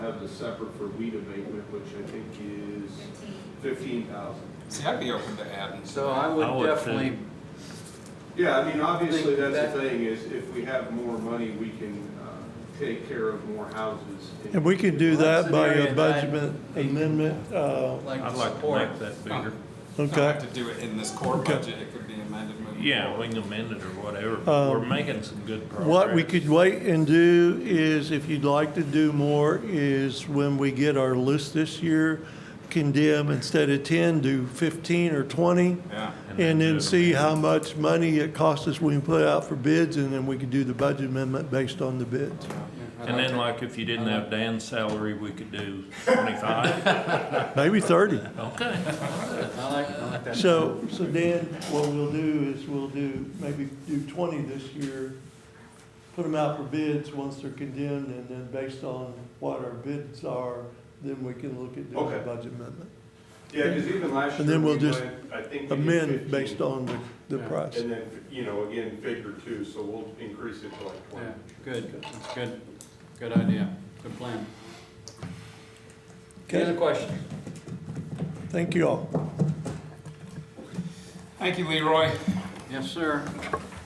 the separate for weed abatement, which I think is fifteen. fifteen thousand. See, I'd be open to adding. So I I would would definitely, Yeah, I mean, obviously, Think that's the that- thing, is if we have more money, we can, uh, take care of more houses. And we can do That's that by an a area that I- budget amendment, uh, like I'd to like to support. make that bigger. Not have okay? to do it in this core Okay. budget, it could be amended moving Yeah, forward. we can amend it or whatever, but we're making some good progress. Um, What we could wait and do is, if you'd like to do more, is when we get our list this year, condemn instead of ten, do fifteen or twenty, Yeah, and do then it see how much money it costs us when we put out for bids, and then we could do the budget amendment based on the bids. And then like if you didn't have Dan's salary, we could do twenty-five. Maybe thirty. Okay. I like, I like that. So, so Dan, what we'll do is we'll do, maybe do twenty this year, put them out for bids once they're condemned, and then based on what our bids are, then we can look at doing a Okay. budget amendment. Yeah, because even last year. And then we'll we just went, I think we did Amend 15, based on the, the Yeah. price. And then, you know, again, figure two, so we'll increase it to like twenty. Yeah, good, that's good, good idea, good plan. Any other Okay, questions? thank you all. thank you, Leroy. Yes, sir.